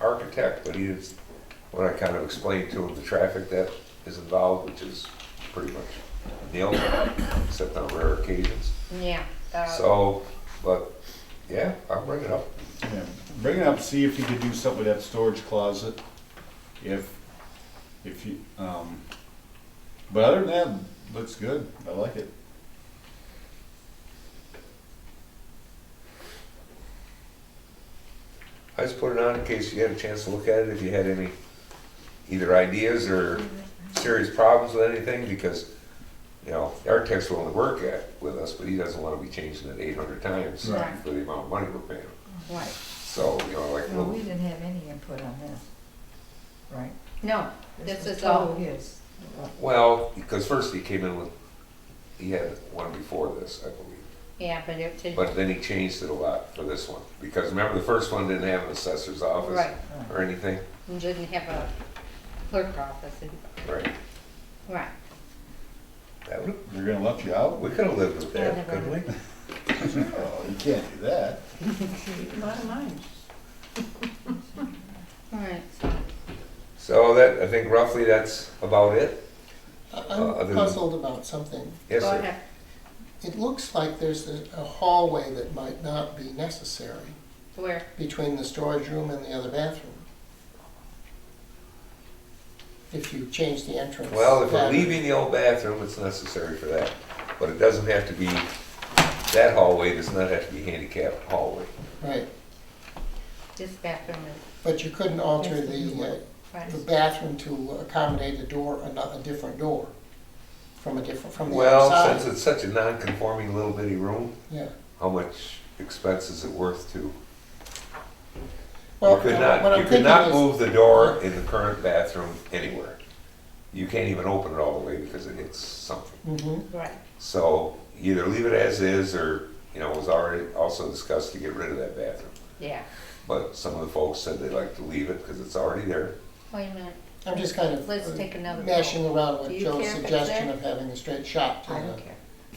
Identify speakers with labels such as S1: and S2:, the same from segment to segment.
S1: architect, but he is, when I kind of explained to him the traffic that is involved, which is pretty much nil, except on rare occasions.
S2: Yeah. uh,
S1: So, but, yeah, I'll bring it up.
S3: Yeah, Bring it up, see if you could do something with that storage closet, if, if you, um, but other than that, looks good, I like it.
S1: I just put it on in case you had a chance to look at it, if you had any either ideas or serious problems with anything, because, you know, the architect's willing to work at, with us, but he doesn't wanna be changing it eight hundred times
S2: Right.
S1: for the amount of money we're paying. him.
S4: Right,
S1: So, you know, like,
S4: well,
S1: well,
S4: we didn't have any input on this, right?
S2: No, this
S4: was
S2: is um, all,
S4: his.
S1: well, because first he came in with, he had one before this, I believe.
S2: yeah, but it did,
S1: But then he changed it a lot for this one, because remember, the first one didn't have an assessor's office
S2: right,
S1: or anything,
S2: it didn't have a clerk office, and-
S1: right?
S2: right.
S1: That would,
S3: They're gonna let you out?
S1: we could've lived with that,
S2: Never
S1: couldn't we?
S2: mind.
S3: Oh, you can't do that.
S4: A lot of mine.
S2: All right, so,
S1: So that, I think roughly that's about it. Uh, other
S5: I'm
S1: than-
S5: puzzled about something.
S1: Yes,
S2: go
S1: sir.
S2: ahead.
S5: It looks like there's a a hallway that might not be necessary
S2: Where,
S5: between the storage room and the other bathroom. If you change the entrance.
S1: Well, if we're
S5: pattern.
S1: leaving the old bathroom, it's necessary for that, but it doesn't have to be, that hallway does not have to be handicapped hallway.
S5: Right,
S2: this bathroom is,
S5: but you couldn't alter
S4: Yes, you
S5: the,
S4: would.
S5: uh,
S2: right,
S5: the bathroom to accommodate a door, ano- a different door from a different, from the
S1: Well,
S5: outside.
S1: since it's such a non-conforming little bitty room,
S5: Yeah.
S1: how much expense is it worth to? You
S5: Well,
S1: could
S5: what
S1: not,
S5: I'm
S1: you could
S5: thinking
S1: not
S5: is-
S1: move the door in the current bathroom anywhere. You can't even open it all the way because it hits something.
S5: Mhm.
S2: right,
S1: So either leave it as is or, you know, it was already also discussed to get rid of that bathroom.
S2: yeah.
S1: But some of the folks said they'd like to leave it because it's already there.
S2: Wait a minute,
S5: I'm just kind of.
S2: let's
S5: uh,
S2: take another
S5: mashing
S2: poll.
S5: around
S2: Do
S5: with
S2: you care
S5: Joe's
S2: if it's
S5: suggestion
S2: there?
S5: of having a straight shot to
S4: I don't
S5: the,
S4: care.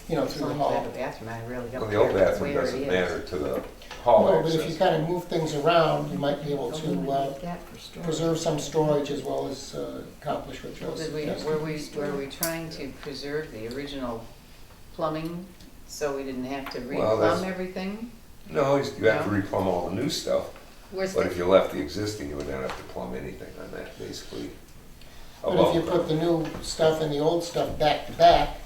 S5: you know,
S4: As
S5: through the
S4: long as I have a
S5: hall.
S4: bathroom, I really
S1: Well,
S4: don't
S1: the
S4: care
S1: old bathroom
S4: where it
S1: doesn't matter
S4: is.
S1: to the
S5: No,
S1: hall
S5: but if you
S1: access.
S5: kind of move things around, you might be able to uh,
S4: Eliminate that for storage.
S5: preserve some storage as well as uh, accomplish what Joe's
S6: Did we, were
S5: suggesting.
S6: we, were we trying to preserve the original plumbing, so we didn't have to
S1: Well, that's-
S6: re-plumb everything?
S1: No, you you have to replumb all the new stuff,
S2: Where's
S1: but if
S2: the,
S1: you left the existing, you would not have to plumb anything on that, basically.
S5: But if
S1: Above
S5: you
S1: ground.
S5: put the new stuff and the old stuff back to back,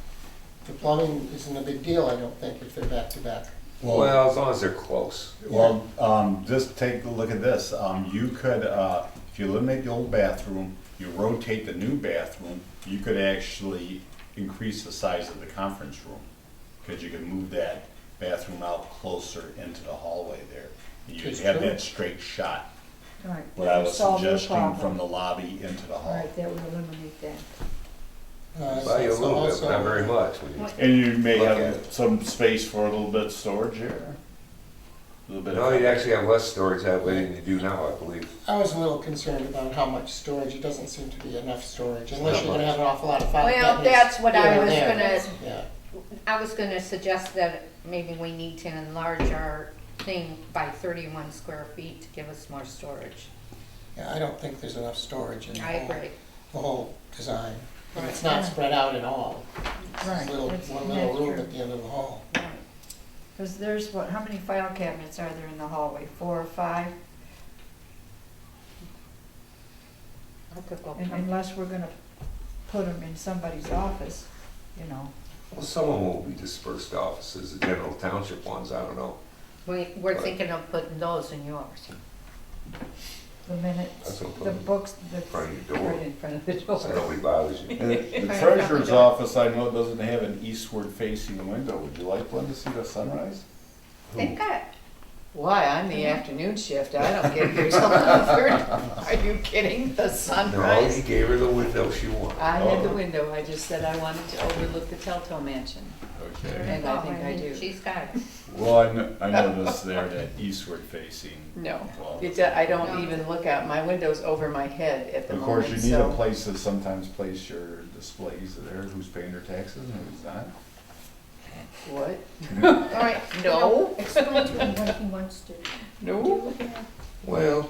S5: the plumbing isn't a big deal, I don't think, if they're back to back.
S1: Well, as long as they're close.
S3: Well, um, just take a look at this, um, you could, uh, if you eliminate the old bathroom, you rotate the new bathroom, you could actually increase the size of the conference room, cause you could move that bathroom out closer into the hallway there. You'd
S5: That's
S3: have
S5: true.
S3: that straight shot,
S4: All right,
S3: what I was
S4: solve your
S3: suggesting,
S4: problem.
S3: from the lobby into the
S4: All
S3: hall.
S4: right, that would eliminate that.
S5: Uh,
S1: By a
S5: so
S1: little bit,
S5: also-
S1: but not very much. when you-
S3: And you may
S1: Look at
S3: have
S1: it.
S3: some space for a little bit of storage here. A little bit
S1: No, you'd
S3: of,
S1: actually have less storage that way than you do now, I believe.
S5: I was a little concerned about how much storage, it doesn't seem to be enough storage, unless
S1: Not
S5: you're
S1: much.
S5: gonna have an awful lot of file
S2: well,
S5: cabinets
S2: that's what I
S5: here and
S2: was
S5: there.
S2: gonna
S5: Yeah.
S2: I was gonna suggest that maybe we need to enlarge our thing by thirty-one square feet to give us more storage.
S5: Yeah, I don't think there's enough storage in the
S2: I
S5: whole,
S2: agree.
S5: the whole design. And it's
S4: Right.
S5: not spread out at all. It's
S4: Right,
S5: little,
S4: that's-
S5: one little
S4: that's
S5: room
S4: true.
S5: at the end of the hall.
S4: Because there's what, how many file cabinets are there in the hallway? Four or five?
S2: I could go
S4: And
S2: come.
S4: Unless we're gonna put them in somebody's office, you know.
S1: Well, some of them will be dispersed offices, the general township ones, I don't know.
S2: We, we're thinking of putting those in yours.
S4: the minutes,
S1: That's what I'm
S4: the
S1: putting
S4: books, the.
S1: front of your door.
S4: Right in front of the door.
S1: So nobody bothers you.
S3: And the the treasurer's office, I know, doesn't have an eastward facing window. Would you like one to see the sunrise?
S2: They've got,
S6: Why, I'm the
S4: Mm-hmm.
S6: afternoon shift, I don't get here till eleven thirty. Are you kidding, the
S1: No, he
S6: sunrise?
S1: gave her the window she wanted.
S6: I had
S3: Oh.
S6: the window, I just said I wanted to overlook the Telto mansion,
S3: Okay.
S6: and I think I do.
S2: Oh, she's got it.
S3: Well, I kn- I noticed there that eastward facing.
S6: No, it, I don't even look out, my window's over my head at the
S3: Of course, you
S6: moment,
S3: need a
S6: so.
S3: place to sometimes place your displays there, who's paying their taxes and who's not.
S6: What?
S2: All right.
S6: No.
S2: Explain to him what he wants to do.
S6: No?
S1: Well,